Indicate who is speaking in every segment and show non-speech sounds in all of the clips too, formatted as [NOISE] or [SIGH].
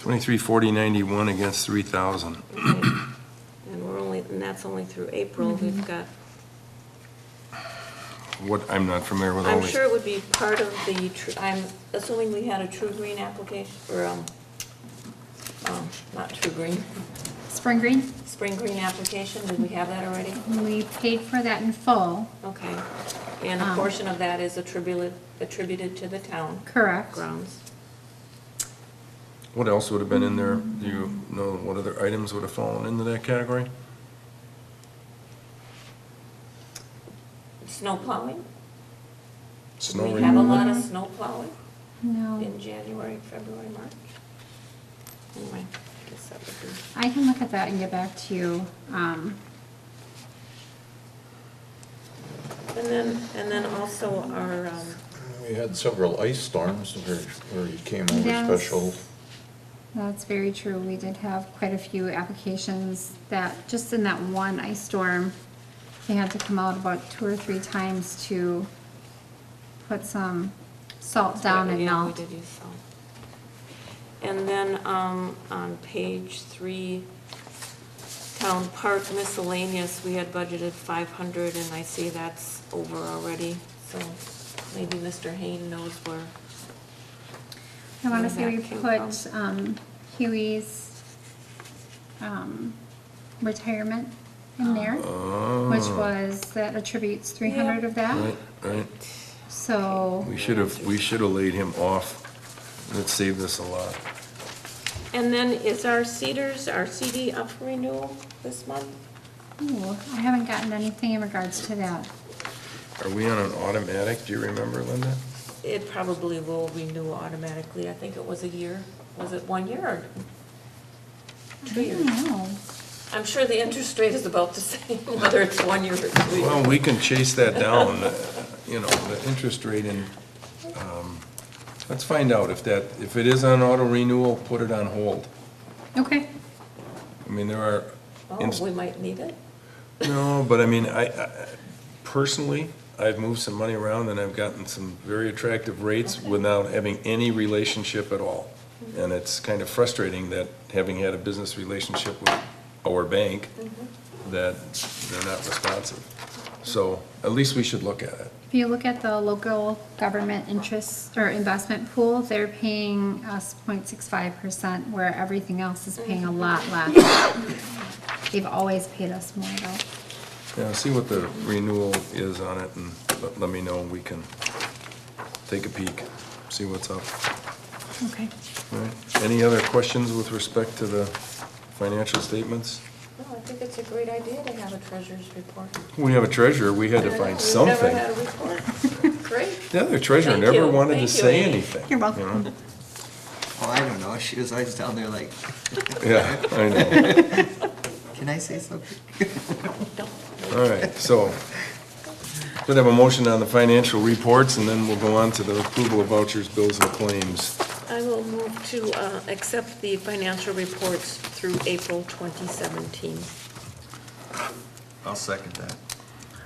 Speaker 1: Twenty-three forty ninety-one against three thousand.
Speaker 2: And we're only, and that's only through April, we've got,
Speaker 1: What, I'm not familiar with all
Speaker 2: I'm
Speaker 1: these.
Speaker 2: sure it would be part of the, tr- I'm assuming we had a True Green application, or, um, um, not True Green,
Speaker 3: Spring Green,
Speaker 2: Spring Green application, did we have that already?
Speaker 3: we paid for that in full,
Speaker 2: Okay, and a
Speaker 3: Um.
Speaker 2: portion of that is attributed, attributed to the town
Speaker 3: correct?
Speaker 2: grounds.
Speaker 1: What else would have been in there? Do you know what other items would have fallen into that category?
Speaker 2: Snow plowing? Did
Speaker 1: Snow
Speaker 2: we have a
Speaker 1: removal?
Speaker 2: lot of snow plowing
Speaker 3: No,
Speaker 2: in January, February, March? Anyway, I guess that would be.
Speaker 3: I can look at that and get back to you. Um,
Speaker 2: And then, and then also our, um,
Speaker 4: We had several ice storms where, where you came over
Speaker 3: Yes.
Speaker 4: special.
Speaker 3: That's very true, we did have quite a few applications that, just in that one ice storm, they had to come out about two or three times to put some salt down and
Speaker 2: Yeah, we
Speaker 3: melt.
Speaker 2: did use salt. And then um, on page three, town park miscellaneous, we had budgeted 500, and I see that's over already, so maybe Mr. Hayne knows where.
Speaker 3: I wanna
Speaker 2: where
Speaker 3: say we
Speaker 2: that came
Speaker 3: put,
Speaker 2: from.
Speaker 3: um, Huey's, um, retirement
Speaker 2: Oh,
Speaker 3: in there, which
Speaker 1: Oh.
Speaker 3: was, that attributes three hundred of that,
Speaker 1: Right, right.
Speaker 3: so.
Speaker 1: We should have, we should have laid him off. That saved us a lot.
Speaker 2: And then is our Cedars, our CD up for renewal this month?
Speaker 3: Ooh, I haven't gotten anything in regards to that.
Speaker 1: Are we on an automatic? Do you remember, Linda?
Speaker 2: It probably will renew automatically, I think it was a year, was it one year or two
Speaker 3: I
Speaker 2: years?
Speaker 3: don't know.
Speaker 2: I'm sure the interest rate is about the [LAUGHS] same, whether it's one year or two
Speaker 1: Well,
Speaker 2: years.
Speaker 1: we can chase that down, uh, you know, the interest rate and, um, let's find out if that, if it is on auto renewal, put it on hold.
Speaker 3: Okay,
Speaker 1: I mean, there are,
Speaker 2: Oh, we might need it.
Speaker 1: no, but I mean, I, I- personally, I've moved some money around and I've gotten some very attractive rates without having any relationship at all. And it's kind of frustrating that, having had a business relationship with our bank, that they're not responsive. So at least we should look at it.
Speaker 3: if you look at the local government interest or investment pool, they're paying us 0.65 percent, where everything else is paying a lot less. They've always paid us more though.
Speaker 1: Yeah, see what the renewal is on it and let, let me know, we can take a peek, see what's up.
Speaker 3: Okay.
Speaker 1: All right. Any other questions with respect to the financial statements?
Speaker 2: No, Oh, I think it's a great idea to have a treasurer's report.
Speaker 1: We have a treasurer, we had to find something.
Speaker 2: We've never had a [LAUGHS] report. Great.
Speaker 1: The other treasurer
Speaker 2: Thank
Speaker 1: never
Speaker 2: you.
Speaker 1: wanted to
Speaker 2: Thank you,
Speaker 1: say
Speaker 2: Amy.
Speaker 1: anything.
Speaker 3: You're welcome.
Speaker 1: know?
Speaker 5: Oh, I don't know. She was always down there like,
Speaker 1: Yeah, I know.
Speaker 5: can I say something?
Speaker 1: All right, so, should have a motion on the financial reports and then we'll go on to the approval of vouchers, bills and claims.
Speaker 2: I will move to uh, accept the financial reports through April 2017.
Speaker 5: I'll second that.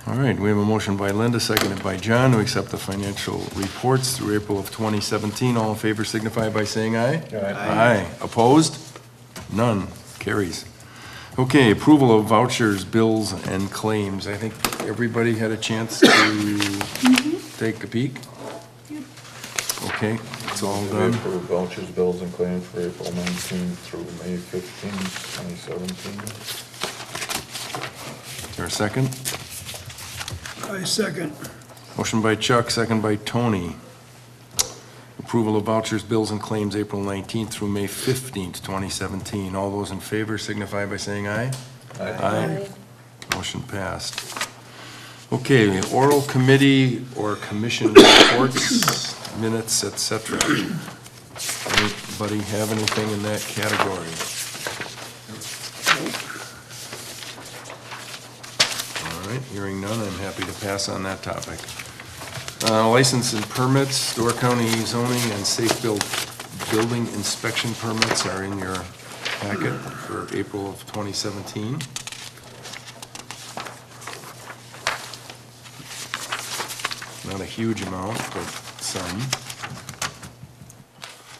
Speaker 1: All right, we have a motion by Linda, seconded by John, to accept the financial reports through April of 2017. All in favor signify by saying aye.
Speaker 5: Aye.
Speaker 1: Aye. Opposed? None. Carries. Okay, approval of vouchers, bills, and claims. I think everybody had a chance to take a peek? Okay, it's all
Speaker 4: We
Speaker 1: done.
Speaker 4: approved vouchers, bills, and claims for April 19th through May 15th, 2017.
Speaker 1: Is there a second?
Speaker 6: I second.
Speaker 1: Motion by Chuck, second by Tony. Approval of vouchers, bills, and claims, April 19th through May 15th, 2017. All those in favor signify by saying aye. Aye. Motion passed. Okay, oral committee or commission reports, minutes, et cetera. Anybody have anything in that category? All right, hearing none, I'm happy to pass on that topic. Uh, License and permits, Door County zoning and safe build, building inspection permits are in your packet for April of 2017. Not a huge amount, but some.